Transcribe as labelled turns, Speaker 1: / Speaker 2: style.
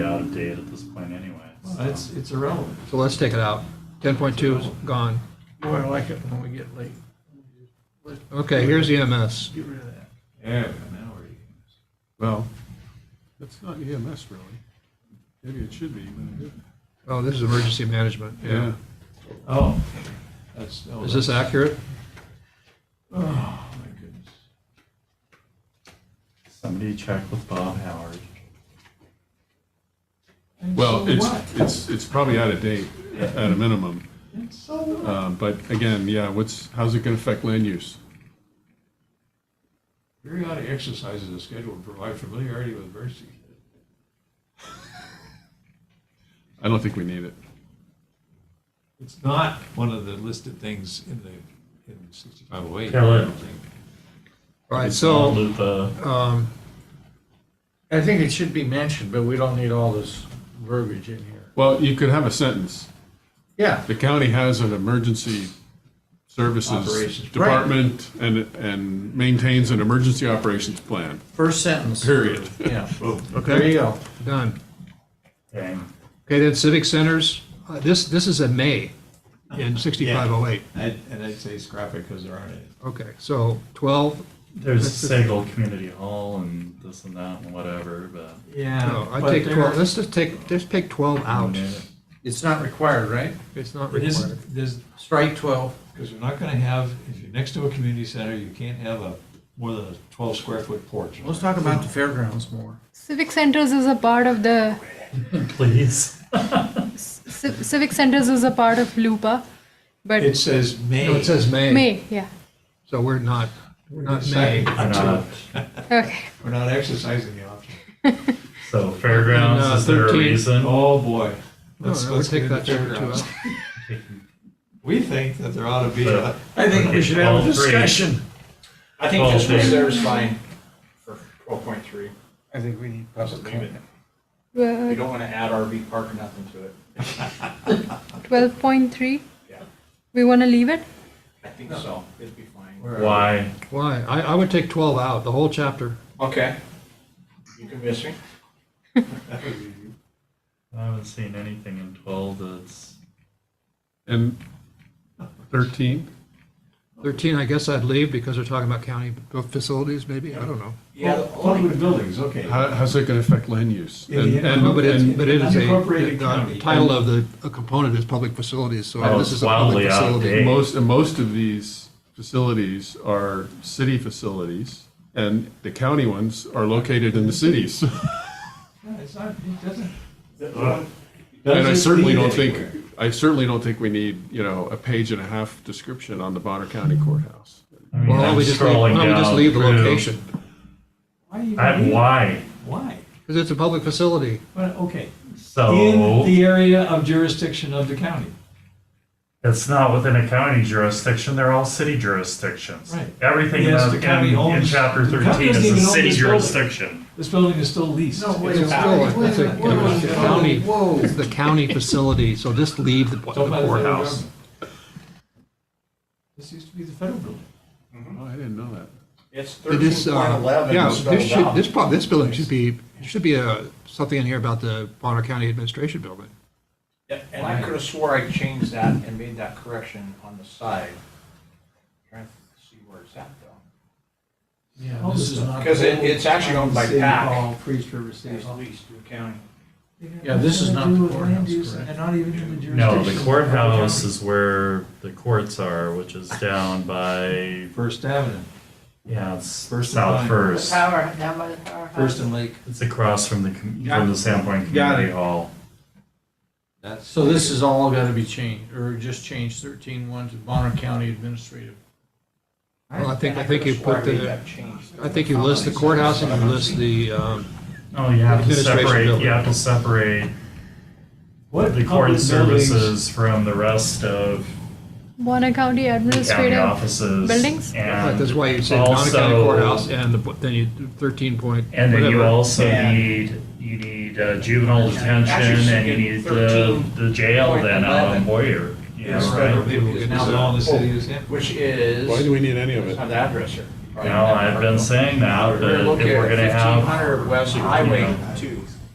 Speaker 1: out of date at this point anyway. so.
Speaker 2: It's, it's irrelevant.
Speaker 3: So let's take it out. Ten point two is gone.
Speaker 2: Boy, I like it when we get late.
Speaker 3: Okay, here's E EMS.
Speaker 2: Get rid of that.
Speaker 1: Yeah, but now we're eating.
Speaker 3: Well,
Speaker 4: That's not EMS really. Maybe it should be, but it isn't.
Speaker 3: oh, this is emergency management. Yeah.
Speaker 2: Oh, that's. oh,
Speaker 3: Is this
Speaker 2: that's-
Speaker 3: accurate?
Speaker 2: Oh, my goodness.
Speaker 1: Somebody check with Bob Howard.
Speaker 2: And
Speaker 4: Well,
Speaker 2: so
Speaker 4: it's,
Speaker 2: what?
Speaker 4: it's, it's probably out of date at a minimum.
Speaker 2: And so what?
Speaker 4: Um, But again, yeah, what's, how's it going to affect land use?
Speaker 2: Periodic exercises are scheduled to provide familiarity with emergency.
Speaker 4: I don't think we need it.
Speaker 2: It's not one of the listed things in the, in sixty-five oh eight.
Speaker 1: Tell it.
Speaker 3: All right,
Speaker 1: It's
Speaker 3: so.
Speaker 1: not Lupa.
Speaker 3: Um,
Speaker 5: I think it should be mentioned, but we don't need all this verbiage in here.
Speaker 4: Well, you could have a sentence.
Speaker 5: Yeah,
Speaker 4: The county has an emergency services
Speaker 2: Operations.
Speaker 4: department and, and maintains an emergency operations plan,
Speaker 5: first sentence.
Speaker 4: period.
Speaker 5: Yeah, there you
Speaker 3: Okay,
Speaker 5: go.
Speaker 3: done.
Speaker 1: Dang.
Speaker 3: Okay, then civic centers, uh, this, this is a May in sixty-five oh eight.
Speaker 2: I'd- And I'd say scrap it because there aren't any.
Speaker 3: Okay, so twelve,
Speaker 1: There's
Speaker 3: That's the-
Speaker 1: Segal Community Hall and this and that and whatever, but.
Speaker 3: no,
Speaker 2: Yeah.
Speaker 3: I take twelve, let's just take, just pick twelve out.
Speaker 5: It's not required, right?
Speaker 3: It's not
Speaker 2: It
Speaker 3: required.
Speaker 2: isn't, there's,
Speaker 5: Strike 12.
Speaker 2: because we're not going to have, if you're next to a community center, you can't have a, more than a twelve square foot porch.
Speaker 5: Let's talk about the fairgrounds more.
Speaker 6: Civic centers is a part of the
Speaker 1: Please.
Speaker 6: ci- civic centers is a part of Lupa, but
Speaker 2: It says May.
Speaker 3: No, it says May,
Speaker 6: May, yeah,
Speaker 3: so we're not, we're not May.
Speaker 2: Second.
Speaker 1: I'm not.
Speaker 6: okay.
Speaker 2: We're not exercising the option.
Speaker 1: So fairgrounds,
Speaker 3: And, uh,
Speaker 1: is there a
Speaker 3: 13.
Speaker 1: reason?
Speaker 2: Oh, boy.
Speaker 3: No,
Speaker 2: Let's-
Speaker 3: I would
Speaker 2: let's
Speaker 3: take
Speaker 2: get
Speaker 3: that
Speaker 2: into
Speaker 3: number two
Speaker 2: fairgrounds.
Speaker 3: out.
Speaker 2: We think that there ought to be a,
Speaker 5: I think we should have a discussion.
Speaker 7: I think
Speaker 1: Well,
Speaker 7: just
Speaker 1: they-
Speaker 7: reserves fine for twelve point three.
Speaker 5: I think we need
Speaker 7: Just leave it.
Speaker 5: comment.
Speaker 7: We
Speaker 6: Well,
Speaker 7: don't want to add RV park or nothing to it.
Speaker 6: 12.3,
Speaker 7: Yeah,
Speaker 6: we want to leave it?
Speaker 7: I think so. It'd be fine.
Speaker 1: Why?
Speaker 3: Why? I, I would take twelve out, the whole chapter.
Speaker 7: Okay. You convince me.
Speaker 1: I haven't seen anything in 12 that's.
Speaker 4: And 13?
Speaker 3: Thirteen, I guess I'd leave because they're talking about county facilities, maybe, I don't know.
Speaker 7: Yeah, the only-
Speaker 2: public buildings, okay.
Speaker 4: How, how's it going to affect land use?
Speaker 2: Yeah,
Speaker 4: And-
Speaker 2: yeah.
Speaker 4: and-
Speaker 3: No, but it's,
Speaker 4: and-
Speaker 3: but it is a,
Speaker 2: unincorporated
Speaker 3: the
Speaker 2: county.
Speaker 3: title of the, a component is public facilities, so
Speaker 1: Oh,
Speaker 3: this
Speaker 1: it's
Speaker 3: is a public
Speaker 1: wildly
Speaker 3: facility.
Speaker 1: outdated.
Speaker 4: And Most, and most of these facilities are city facilities, and the county ones are located in the cities.
Speaker 2: No, It's not, it doesn't.
Speaker 4: And I
Speaker 2: Doesn't
Speaker 4: certainly
Speaker 2: lead
Speaker 4: don't think,
Speaker 2: anywhere.
Speaker 4: I certainly don't think we need, you know, a page and a half description on the Bonner County Courthouse.
Speaker 1: I mean,
Speaker 3: Well, why don't
Speaker 1: I'm
Speaker 3: we just leave, why
Speaker 1: scrolling
Speaker 3: don't we just
Speaker 1: down
Speaker 3: leave the
Speaker 1: through.
Speaker 3: location?
Speaker 2: Why? you
Speaker 1: I,
Speaker 2: need-
Speaker 1: why?
Speaker 2: Why?
Speaker 3: Because it's a public facility.
Speaker 2: Well, okay. In
Speaker 1: So
Speaker 2: the area of jurisdiction of the county.
Speaker 1: it's not within a county jurisdiction. They're all city jurisdictions.
Speaker 2: Right.
Speaker 1: Everything
Speaker 2: Yes,
Speaker 1: about
Speaker 2: the
Speaker 1: in,
Speaker 2: county
Speaker 1: in
Speaker 2: owns-
Speaker 1: chapter
Speaker 2: the county
Speaker 1: 13
Speaker 2: doesn't
Speaker 1: is a
Speaker 2: even own
Speaker 1: city
Speaker 2: this building.
Speaker 1: jurisdiction.
Speaker 2: This building is still leased.
Speaker 5: No, wait a
Speaker 3: It's
Speaker 5: minute,
Speaker 3: still,
Speaker 5: wait a
Speaker 3: it's a-
Speaker 5: minute, wait a
Speaker 3: it's a
Speaker 5: minute.
Speaker 3: county,
Speaker 5: Whoa.
Speaker 3: it's the county facility, so just leave the the
Speaker 2: It's owned by the federal
Speaker 3: courthouse.
Speaker 2: government. This used to be the federal building.
Speaker 4: Oh, I didn't know that.
Speaker 7: It's
Speaker 3: It
Speaker 7: thirteen
Speaker 3: is,
Speaker 7: point
Speaker 3: uh, yeah,
Speaker 7: eleven
Speaker 3: this
Speaker 7: spelled
Speaker 3: should, this
Speaker 7: out.
Speaker 3: prob, this building should be, there should be a, something in here about the Bonner County Administration Building.
Speaker 7: Yeah, And I could have swore I changed that and made that correction on the side. Trying to see where it's at though.
Speaker 5: Yeah,
Speaker 2: All
Speaker 5: this
Speaker 2: this
Speaker 5: is
Speaker 2: stuff.
Speaker 5: not.
Speaker 7: Because it- it's actually owned by PAC.
Speaker 5: Priest River City.
Speaker 7: It's leased to the county.
Speaker 5: Yeah, this is not the courthouse, correct?
Speaker 2: And not even in the jurisdiction.
Speaker 1: No, the
Speaker 2: of
Speaker 1: courthouse
Speaker 2: county.
Speaker 1: is where the courts are, which is down by,
Speaker 2: First Avenue,
Speaker 1: yeah, it's
Speaker 2: First
Speaker 1: South
Speaker 2: and Vine.
Speaker 1: First.
Speaker 8: Tower, down by the tower.
Speaker 2: First and Lake.
Speaker 1: It's across from the, com-
Speaker 5: Got
Speaker 1: from the Sandpoint
Speaker 5: Got
Speaker 1: Community Hall.
Speaker 2: That's.
Speaker 5: So this is all gotta be changed, or just change thirteen one to Bonner County Administrative.
Speaker 3: Well, I think,
Speaker 7: And
Speaker 3: I think
Speaker 7: coulda
Speaker 3: you
Speaker 7: swore I
Speaker 3: put
Speaker 7: made
Speaker 3: the,
Speaker 7: that change.
Speaker 3: I think you list the courthouse and you list the, um,
Speaker 1: Oh, you have to
Speaker 3: Administration
Speaker 1: separate,
Speaker 3: building.
Speaker 1: you have to separate
Speaker 2: What
Speaker 1: the
Speaker 2: public
Speaker 1: court
Speaker 2: buildings-
Speaker 1: services from the rest of
Speaker 6: Bonner County
Speaker 1: the county
Speaker 6: Administrative,
Speaker 1: offices.
Speaker 6: buildings?
Speaker 1: And
Speaker 3: that's why you say Bonner County
Speaker 1: also-
Speaker 3: Courthouse and the- then you do thirteen point,
Speaker 1: And then you
Speaker 3: whatever.
Speaker 1: also
Speaker 7: Yeah.
Speaker 1: need, you need uh, juvenile
Speaker 7: Actually,
Speaker 1: detention
Speaker 7: she
Speaker 1: and you
Speaker 7: did
Speaker 1: need the, the jail then out on
Speaker 7: 13.11.
Speaker 1: Boyer. you know,
Speaker 7: It's
Speaker 1: right?
Speaker 7: federal, it's now
Speaker 2: It's all in the city of San-
Speaker 7: Which is.
Speaker 4: Why do we need any of
Speaker 7: It's
Speaker 4: it?
Speaker 7: not the address here.
Speaker 1: No, I've been saying that, but
Speaker 7: We're
Speaker 1: if
Speaker 7: looking
Speaker 1: we're
Speaker 7: at
Speaker 1: gonna have,
Speaker 7: fifteen hundred West Highway two.